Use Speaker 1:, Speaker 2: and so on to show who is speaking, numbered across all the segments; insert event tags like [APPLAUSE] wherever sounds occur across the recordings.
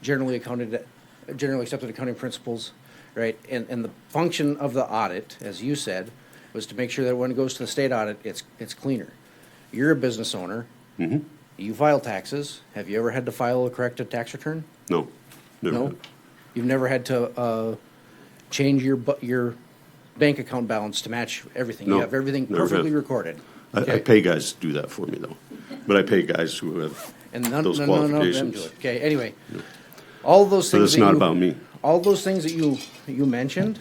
Speaker 1: generally accounted, generally accepted accounting principles, right? And, and the function of the audit, as you said, was to make sure that when it goes to the state audit, it's, it's cleaner. You're a business owner.
Speaker 2: Mm-hmm.
Speaker 1: You file taxes. Have you ever had to file a corrected tax return?
Speaker 2: No. never
Speaker 1: No?
Speaker 2: had.
Speaker 1: You've never had to, uh, change your, bu- your bank account balance to match everything? You
Speaker 2: No,
Speaker 1: have everything
Speaker 2: never had.
Speaker 1: perfectly recorded?
Speaker 2: I, I
Speaker 1: okay?
Speaker 2: pay guys to do that for me though, but I pay guys who have
Speaker 1: And none,
Speaker 2: those
Speaker 1: none, none of them do
Speaker 2: qualifications.
Speaker 1: it. Okay, anyway, all those
Speaker 2: So
Speaker 1: things.
Speaker 2: that's
Speaker 1: that
Speaker 2: not
Speaker 1: you-
Speaker 2: about me. Mm-hmm.
Speaker 1: All those things that you, that you mentioned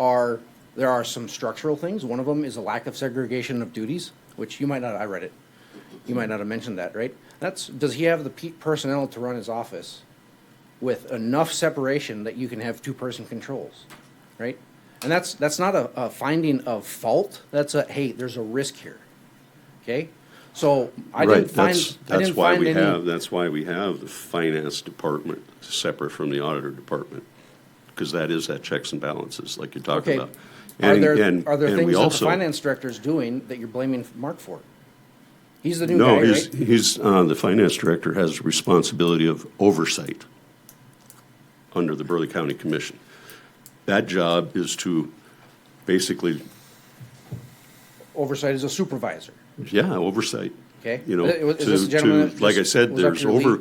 Speaker 1: are, there are some structural things. One of them is a lack of segregation of duties, which you might not, I read it. You might not have mentioned that, right? That's, does he have the pe- personnel to run his office with enough separation that you can have two-person controls, right? And that's, that's not a, a finding of fault. That's a, hey, there's a risk here, okay? So I
Speaker 2: Right,
Speaker 1: didn't find,
Speaker 2: that's,
Speaker 1: I
Speaker 2: that's
Speaker 1: didn't
Speaker 2: why
Speaker 1: find
Speaker 2: we
Speaker 1: any.
Speaker 2: have, that's why we have the finance department separate from the auditor department. Because that is that checks and balances like you're talking
Speaker 1: Okay.
Speaker 2: about.
Speaker 1: Are
Speaker 2: And-
Speaker 1: there,
Speaker 2: and-
Speaker 1: are there
Speaker 2: and we
Speaker 1: things that the
Speaker 2: also-
Speaker 1: finance director is doing that you're blaming Mark for? He's the new
Speaker 2: No,
Speaker 1: guy,
Speaker 2: he's,
Speaker 1: right?
Speaker 2: he's, uh, the finance director has responsibility of oversight under the Burley County Commission. That job is to basically,
Speaker 1: Oversight is a supervisor.
Speaker 2: yeah, oversight.
Speaker 1: Okay.
Speaker 2: You know,
Speaker 1: Uh, was- is this
Speaker 2: to,
Speaker 1: gentleman
Speaker 2: to,
Speaker 1: that
Speaker 2: like I
Speaker 1: just
Speaker 2: said,
Speaker 1: was up
Speaker 2: there's
Speaker 1: your lead?
Speaker 2: over,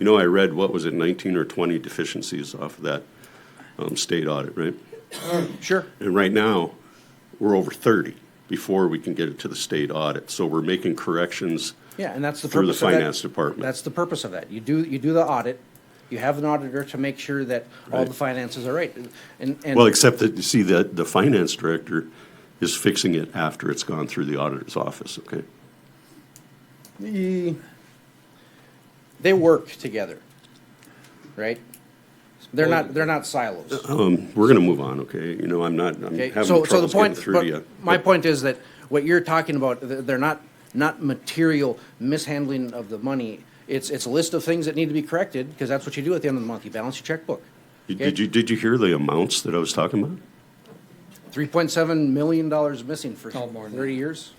Speaker 2: you know, I read, what was it, nineteen or twenty deficiencies off of that, um, state audit, right?
Speaker 1: Sure.
Speaker 2: And right now, we're over thirty before we can get it to the state audit. So we're making corrections.
Speaker 1: Yeah, and that's the
Speaker 2: Through the
Speaker 1: purpose of that-
Speaker 2: finance department.
Speaker 1: That's the purpose of that. You do, you do the audit, you have an auditor to make sure that all
Speaker 2: Right.
Speaker 1: the finances are right. And, and.
Speaker 2: Well, except that, you see, the, the finance director is fixing it after it's gone through the auditor's office, okay?
Speaker 1: Eh, They work together, right? They're not, they're not silos.
Speaker 2: Um, We're gonna move on, okay? You know, I'm not, Uh, I'm
Speaker 1: Okay,
Speaker 2: having
Speaker 1: so, so the
Speaker 2: troubles getting
Speaker 1: point,
Speaker 2: through to you.
Speaker 1: but my point is that what you're talking about, th- they're not, not material mishandling of the money. It's, it's a list of things that need to be corrected, because that's what you do at the end of the month, you balance your checkbook.
Speaker 2: Did- Did you, did you hear the amounts that I was talking about?
Speaker 1: Three point seven million dollars missing for
Speaker 3: No, more than
Speaker 1: thirty years?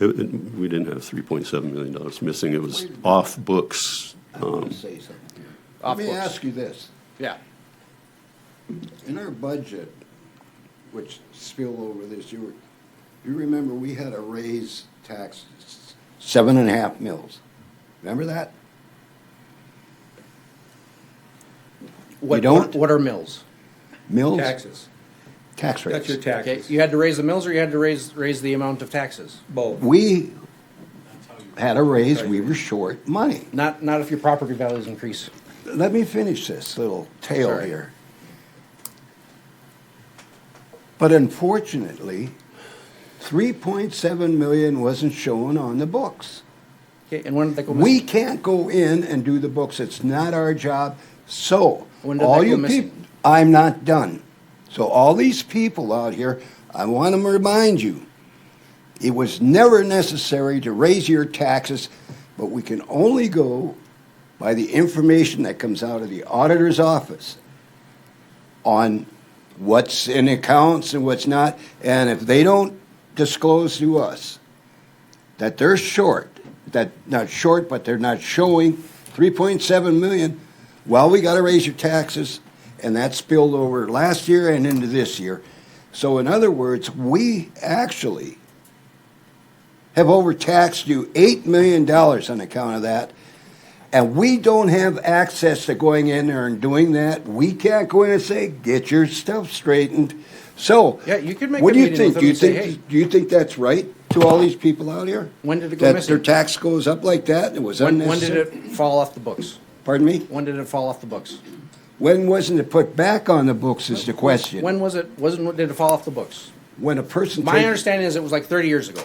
Speaker 2: It- it- We didn't have three point seven million dollars missing, it was off books. uh,
Speaker 4: I want to say something. here.
Speaker 1: Um, Off
Speaker 4: Let me
Speaker 1: books.
Speaker 4: ask you this.
Speaker 1: Yeah.
Speaker 4: In our budget, which spill over this, you, were- you remember we had a raise tax, seven and a half mils. Remember that?
Speaker 1: What,
Speaker 4: don't?
Speaker 1: what are mills?
Speaker 4: Mills?
Speaker 3: Taxes,
Speaker 4: Tax
Speaker 3: that's your
Speaker 4: rates.
Speaker 1: Okay,
Speaker 3: taxes,
Speaker 1: you had to raise the mills or you had to raise, raise the amount of taxes?
Speaker 3: both.
Speaker 4: We had a raise, we were short money.
Speaker 1: Not, not if your property values increase.
Speaker 4: Let me finish this little tale
Speaker 1: Sorry.
Speaker 4: here. But unfortunately, three point seven million wasn't shown on the books.
Speaker 1: Okay, and when did that go
Speaker 4: We
Speaker 1: missing?
Speaker 4: can't go in and do the books. It's not our job. So,
Speaker 1: When did
Speaker 4: all
Speaker 1: that go
Speaker 4: you
Speaker 1: missing?
Speaker 4: people, I'm not done. So, all these people out here, I want to remind you it was never necessary to raise your taxes, but we can only go by the information that comes out of the auditor's office on what's in accounts and what's not. And if they don't disclose to us that they're short, that not short, but they're not showing 3.7 million, well, we got to raise your taxes. And that spilled over last year and into this year. So, in other words, we actually have overtaxed you $8 million on account of that. And we don't have access to going in there and doing that. We can't go in and say, get your stuff straightened. So,
Speaker 1: Yeah, you could make
Speaker 4: what
Speaker 1: a
Speaker 4: do you
Speaker 1: meeting with
Speaker 4: think?
Speaker 1: them
Speaker 4: do you
Speaker 1: and say,
Speaker 4: think
Speaker 1: "Hey."
Speaker 4: do you think that's right to all these people out here?
Speaker 1: When did it go
Speaker 4: that
Speaker 1: missing?
Speaker 4: Their tax goes up like that. It was
Speaker 1: When, when did
Speaker 4: unnecessary.
Speaker 1: it fall off the books?
Speaker 4: Pardon me.
Speaker 1: When did it fall off the books?
Speaker 4: When wasn't it put back on the books? Is the question.
Speaker 1: When was it, wasn't, did it fall off the books?
Speaker 4: When a person.
Speaker 1: My
Speaker 4: takes-
Speaker 1: understanding is it was like 30 years ago.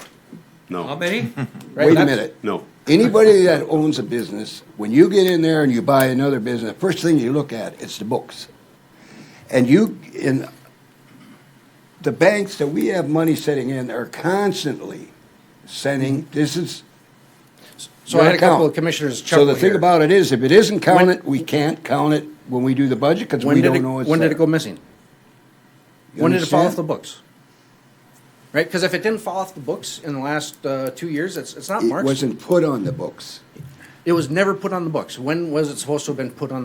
Speaker 3: How
Speaker 2: No,
Speaker 3: many? [LAUGHS]
Speaker 1: Right?
Speaker 4: Wait a
Speaker 1: That's-
Speaker 4: minute.
Speaker 2: no,
Speaker 4: Anybody that owns a business, when you get in there and you buy another business, first thing you look at is the books. And you in the banks that we have money sitting in are constantly sending this is
Speaker 1: So I had a
Speaker 4: your
Speaker 1: couple
Speaker 4: account.
Speaker 1: of commissioners
Speaker 4: So
Speaker 1: chuckle
Speaker 4: the thing
Speaker 1: here.
Speaker 4: about it is, if it isn't counted, we can't count it when we do the budget because
Speaker 1: when
Speaker 4: we
Speaker 1: did
Speaker 4: don't
Speaker 1: it,
Speaker 4: know it's
Speaker 1: when did it
Speaker 4: there.
Speaker 1: go missing?
Speaker 4: You
Speaker 1: When did it fall off the
Speaker 4: understand?
Speaker 1: books? Right? Because if it didn't fall off the books in the last uh, two years, it's, it's not
Speaker 4: It
Speaker 1: Mark's.
Speaker 4: wasn't put on the books.
Speaker 1: It was never put on the books. When was it supposed to have been put on